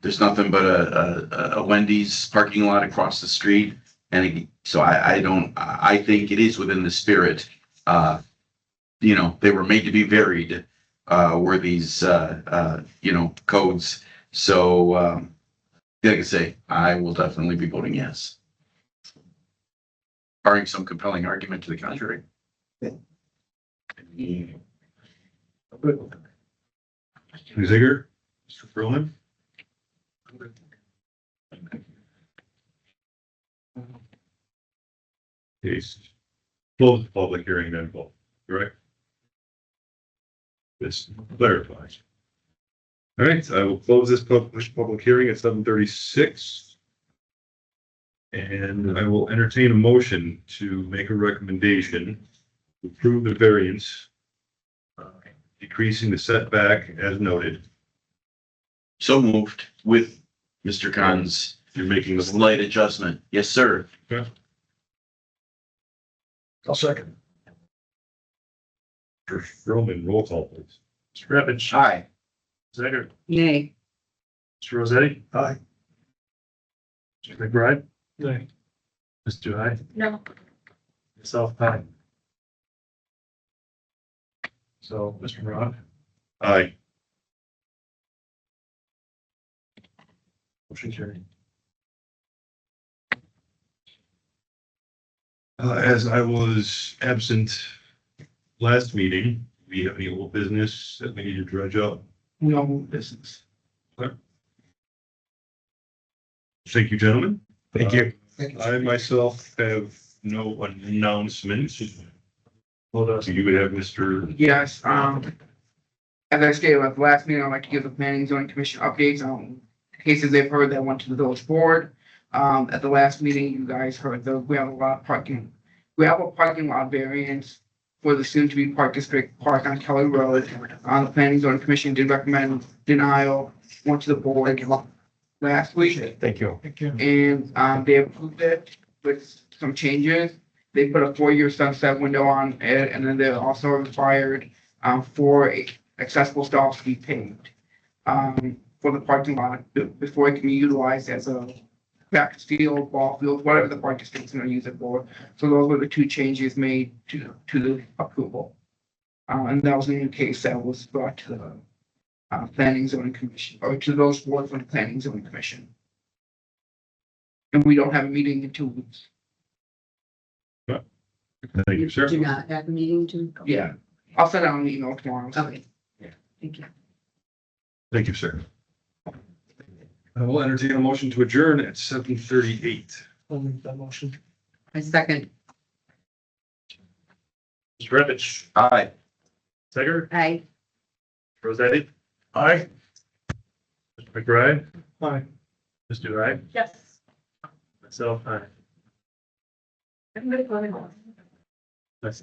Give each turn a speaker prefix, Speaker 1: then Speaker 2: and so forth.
Speaker 1: there's nothing but a, a, a Wendy's parking lot across the street. And it- so I, I don't, I I think it is within the spirit. Uh, you know, they were made to be varied, uh, were these, uh, uh, you know, codes. So, um, like I say, I will definitely be voting yes. Barring some compelling argument to the contrary.
Speaker 2: Mr. Ziger, Mr. Berlin. Case. Close the public hearing then, vote, correct? This clarifies. All right, I will close this public, public hearing at seven thirty-six. And I will entertain a motion to make a recommendation to approve the variance uh, decreasing the setback as noted.
Speaker 1: So moved with Mr. Khan's
Speaker 2: You're making the
Speaker 1: slight adjustment. Yes, sir.
Speaker 3: I'll second.
Speaker 2: Mr. Sherman roll call, please.
Speaker 3: Mr. Revich.
Speaker 1: Aye.
Speaker 3: Zager.
Speaker 4: Nay.
Speaker 3: Mr. Rosetti. Aye. Mr. McBride. Aye. Mr. Hyde.
Speaker 4: No.
Speaker 3: Myself, aye. So, Mr. Rock.
Speaker 2: Aye.
Speaker 3: Motion carried.
Speaker 2: Uh, as I was absent last meeting, do we have any old business that we need to dredge up?
Speaker 3: No business.
Speaker 2: Thank you, gentlemen. Uh,
Speaker 3: Thank you.
Speaker 2: I myself have no announcements.
Speaker 3: Hold on.
Speaker 2: So you would have Mr.
Speaker 5: Yes, um, as I stated at the last meeting, I'd like to give the planning and zoning commission updates on cases they've heard that went to the village board. Um, at the last meeting, you guys heard the gravel lot parking, gravel parking lot variance for the soon-to-be park district park on Kelly Road. Uh, the planning and zoning commission did recommend denial, went to the board last week.
Speaker 3: Thank you. Thank you.
Speaker 5: And um, they approved it with some changes. They put a four-year sunset window on it, and then they're also required um, for accessible stalls to be paved um, for the parking lot be- before it can be utilized as a track field, ball field, whatever the park district's gonna use it for. So those were the two changes made to, to the approval. Uh, And that was a new case that was brought to the uh, planning zoning commission, or to those boards from the planning zoning commission. And we don't have a meeting in two weeks.
Speaker 2: Thank you, sir.
Speaker 4: Do not have a meeting to?
Speaker 5: Yeah, I'll send out an email tomorrow.
Speaker 4: Okay.
Speaker 5: Yeah.
Speaker 4: Thank you.
Speaker 2: Thank you, sir. I will entertain a motion to adjourn at seven thirty-eight.
Speaker 3: motion.
Speaker 4: I second.
Speaker 3: Mr. Revich.
Speaker 1: Aye.
Speaker 3: Zager.
Speaker 4: Aye.
Speaker 3: Rosetti. Aye. Mr. McBride. Aye. Mr. Hyde.
Speaker 4: Yes.
Speaker 3: Myself, aye.
Speaker 4: I'm gonna go ahead.
Speaker 3: Nice.